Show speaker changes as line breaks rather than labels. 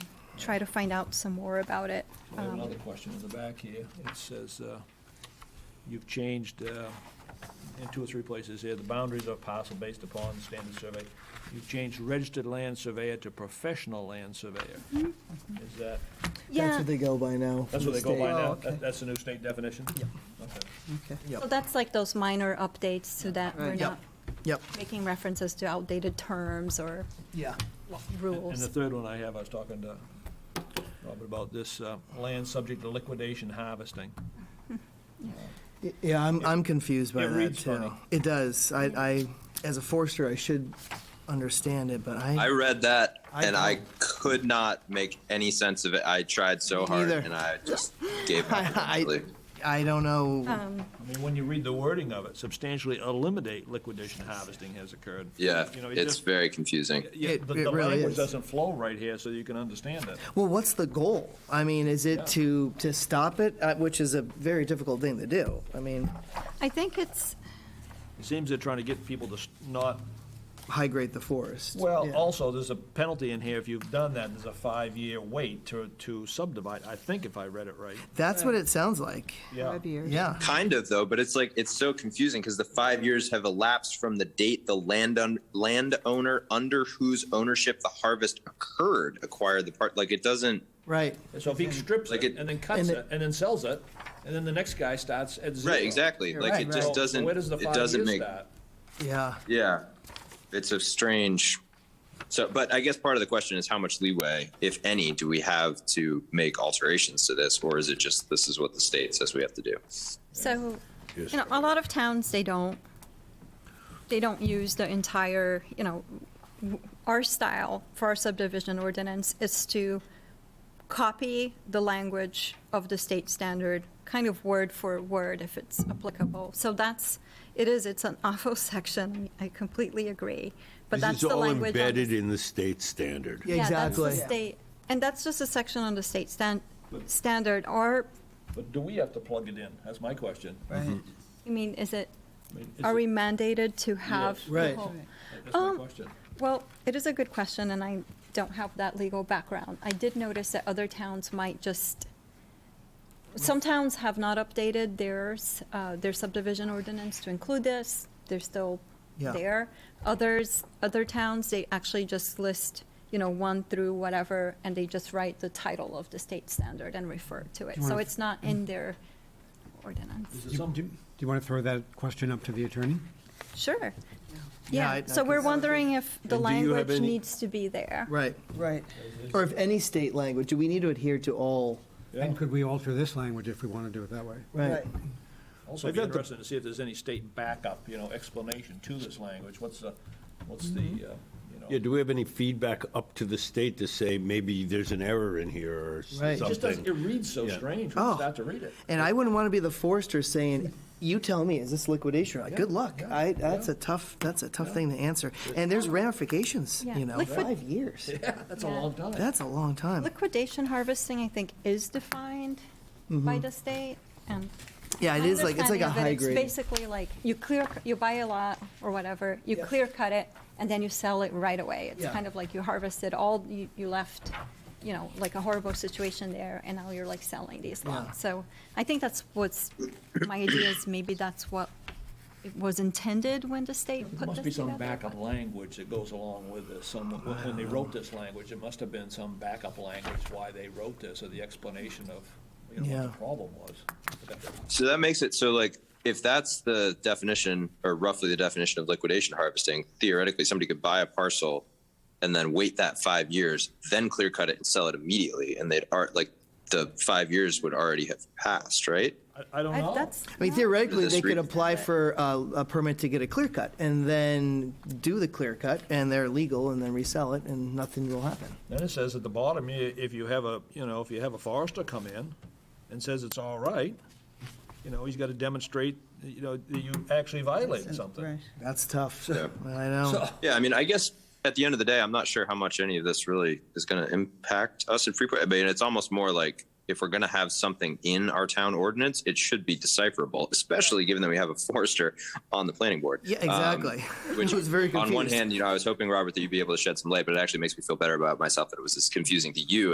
try to find out some more about it.
I have
Um,
another question in the back here. It says, uh, you've changed, uh, in two or three places here, the boundaries of parcel based upon standard survey. You've changed registered land surveyor to professional land surveyor. Is that,
Yeah.
That's what they go by now.
that's
from
what
the
they go by
state. Oh,
now?
okay.
That- That's the new state definition?
Yep.
Okay.
Okay,
Oh, So
Yep,
that's like those minor updates so that we're
Right.
Yep.
not
yep,
making references to outdated terms or
Yeah.
And- And the
rules.
third one I have, I was talking to Robert about this, uh, land subject to liquidation harvesting.
Y- yeah, I'm, I'm confused by
It
that
reads funny.
too. It does, I, I, as a forester, I should understand it, but
I
I,
read that
I
and I
don't.
could not make any sense of it. I tried so
Me
hard
neither.
and I just gave up.
I-
eventually.
I don't know.
Um,
I mean, when you read the wording of it, substantially eliminate liquidation harvesting has occurred.
Yeah,
You know, it
it's
just-
very confusing.
Yeah,
It-
the,
it
the
really
language
is.
doesn't flow right here, so you can understand it.
Well, what's the goal? I mean, is
Yeah.
it to, to stop it, Uh, which is a very difficult thing to do? I mean,
I think it's,
It seems they're trying to get people to s- not,
high grade the forest.
well,
Yeah.
also, there's a penalty in here if you've done that, there's a five-year wait to, to subdivide, I think if I read it right.
That's what it sounds like,
Yeah,
yeah.
Kind of though, but it's like it's so confusing because the five years have elapsed from the date the land un- landowner under whose ownership the harvest occurred acquired the part. Like it doesn't.
Right,
so if he strips
Like
it
it-
and then cuts
And
it
it-
and then sells it, and then the next guy starts at zero.
Right, exactly.
You're
Like
right,
it
right.
So-
just
so
doesn't.
Where does the
It
five
doesn't
years
make.
start?
yeah.
Yeah, it's a strange. So, but I guess part of the question is how much leeway, if any, do we have to make alterations to this, or is it just this is what the state says we have to do?
so, you know, a lot of towns, they don't, they don't use the entire, you know, w- our style for our subdivision ordinance is to copy the language of the state standard, kind of word for word if it's applicable. So that's, it is, it's an awful section, I completely agree, but that's the language. on
It's
the
all embedded in the state standard.
Yeah.
Yeah, that's the
Exactly.
state, and that's just a section on the state stan- standard, or,
But do we have to plug it in? That's my question.
I mean, is it,
I mean, is
are
it-
we mandated to have?
Yes.
the
Right.
whole-
That's my
um,
question.
Well, it is a good question, and I don't have that legal background. I did notice that other towns might just, some towns have not updated theirs, uh, their subdivision ordinance to include this. They're still
Yeah.
there. Others, other towns, they actually just list, you know, one through whatever, and they just write the title of the state standard and refer to it. So it's not in their
Mm.
ordinance.
Is it
Do
some-
do- do you want to throw that question up to the attorney?
Sure.
Yeah, I-
Yeah,
I
so we're
can-
wondering if the
And do you have
language
any-
needs to be there.
Right,
Right.
or if any state language, do we need to adhere to all?
And could we alter this language if we want to do it that way?
Right.
Also, it'd be interesting to see if there's any state backup, you know, explanation to this language. What's the, what's the, uh, you know?
Mm-hmm. Yeah, do we have any feedback up to the state to say maybe there's an error in here or
Right.
something?
It
It just doesn't, it reads so
Yeah.
strange when
Oh.
you start to read it.
And I wouldn't want to be the forester saying, "You tell me, is this liquidation?" or not?" Good luck. I, that's a tough. That's a tough thing to answer. And there's ramifications.
Yeah.
You know,
Liquid-
five years.
That's a
Yeah.
long time.
That's a long time.
Liquidation harvesting, I think, is defined by the state, and.
Yeah, Mm-hmm. it
my
is like it's
understanding
like a
of it,
high
it's
grade.
Basically, like, you clear, you buy a lot or whatever, you clear cut it, and then you sell it right away. It's
Yeah.
kind of like you harvested all, you, you left, you know, like a horrible situation there, and now you're like selling these lots. So I think that's what's, my idea is maybe that's what it was intended when the state
There
put this
must be some
together,
backup
but-
language that goes along with this. Some, when they wrote this language, it must have been some backup language why they wrote this or the explanation of, you know, what
Yeah.
the problem was.
So that makes it so like if that's the definition, or roughly the definition of liquidation harvesting, theoretically somebody could buy a parcel and then wait that five years, then clear cut it and sell it immediately, and they'd art like the five years would already have passed, right?
I, I don't
I-
know.
That's.
I mean,
not-
theoretically,
This
they could
re-
apply for a, a permit to get a clear cut and then do the clear cut, and they're legal, and then resell it, and nothing will happen.
Then it says at the bottom, i- if you have a, you know, if you have a forester come in and says it's all right, you know, he's got to demonstrate, you know, that you actually violated something.
Right.
That's tough.
Yeah.
I know.
So-
Yeah, I mean, I guess at the end of the day, I'm not sure how much any of this really is going to impact us in Freeport. I mean, it's almost more like if we're going to have something in our town ordinance, it should be decipherable, especially given that we have a forester on the planning board.
Yeah,
Um,
exactly.
which
I was very
on one
confused.
hand, you know, I was hoping Robert that you'd be able to shed some light, but it actually makes me feel better about myself that it was as confusing to you